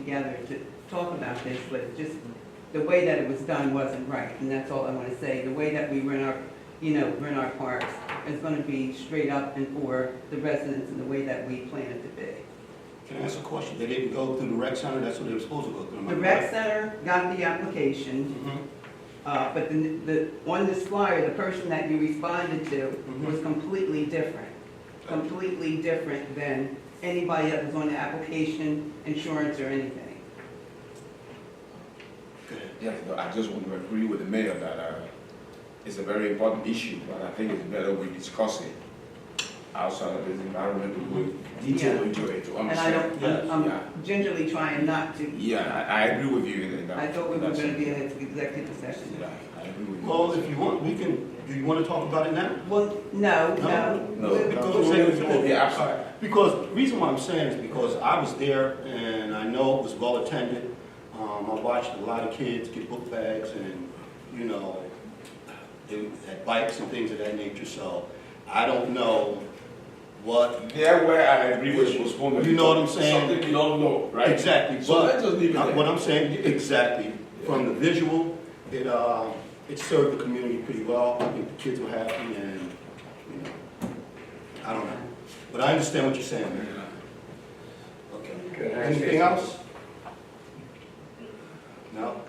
together to talk about this, but just the way that it was done wasn't right, and that's all I want to say. The way that we run our, you know, run our parks is going to be straight up and for the residents and the way that we plan it to be. Can I ask a question? They didn't go through the rec center, that's what they were supposed to go through. am I The rec correct? center got the application, Mhm. uh, but the, the, on this flyer, the person that you responded to was completely different. Completely different than anybody that was on the application, insurance, or anything. Okay. Yeah, no, I just want to agree with the mayor that uh, it's a very important issue, but I think it's better we discuss it outside of this environment, we go detail into it to And I understand. don't, I'm- Yeah. I'm gingerly trying not to Yeah, I, I agree with you in that. I thought we were That's- gonna be in executive session. Yeah, I agree with you. Well, if you want, we can, do you want to talk about it now? Well, no, no. No, We- Because- no, yeah, I'm sorry. Because, the reason why I'm saying is because I was there and I know it was well attended. Um, I watched a lot of kids get book bags and, you know, they had bikes and things of that nature, so I don't know what, There where I agree with postponement. You know what I'm saying? Something we don't know, right? exactly, So but let's just leave it Uh, What there. I'm saying, exactly, from the visual, it, uh, it served the community pretty well, I think the kids were happy and, you know, I don't know. But I understand what you're saying, man. Okay. Anything else? No?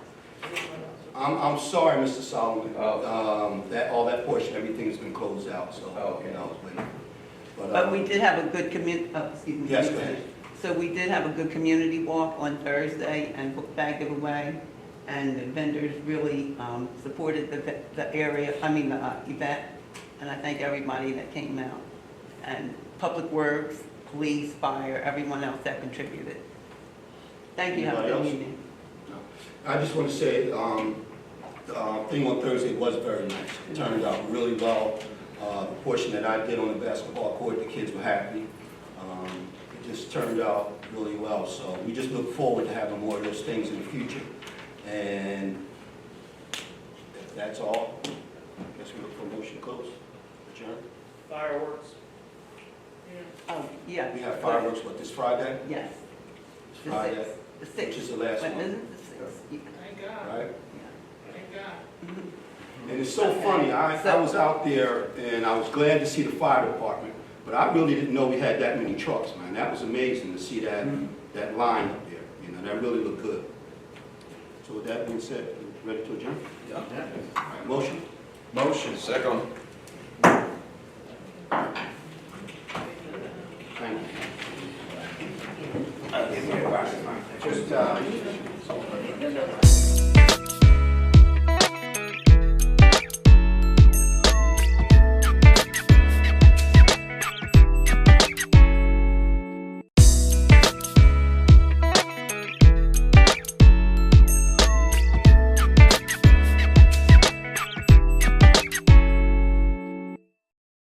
I'm, I'm sorry, Mr. Solomon, um, that, all that portion, everything's been closed out, so, you know, but. But we uh, did have a good commu, oh, excuse me. Yes, go ahead. So we did have a good community walk on Thursday and book bag giveaway. And the vendors really, um, supported the, ve- the area, I mean, the uh, event. And I thank everybody that came out. And Public Works, police, fire, everyone else that contributed. Thank you, have a Anybody good else? evening. I just want to say, um, the uh, thing on Thursday was very nice. It turned out really well. Uh, The portion that I did on the basketball court, the kids were happy. Um, It just turned out really well, so we just look forward to having more of those things in the future. And if that's all, I guess we look for a motion to close. Adjourn. Fireworks. Oh, yeah. We have fireworks, what, this Friday? Yes. This The Friday, sixth, the which sixth. is the last Wait, one, isn't it the sixth? Yeah, Thank God, right? yeah. thank God. Mhm. And it's so funny, I, I was out there and I was glad to see the fire department, but I really didn't know we had that many trucks, man. That was amazing to see that, that line up there, you know, that really looked good. So with that being said, ready to adjourn? All right, Motion? Motion, second. Thank you. Just, uh,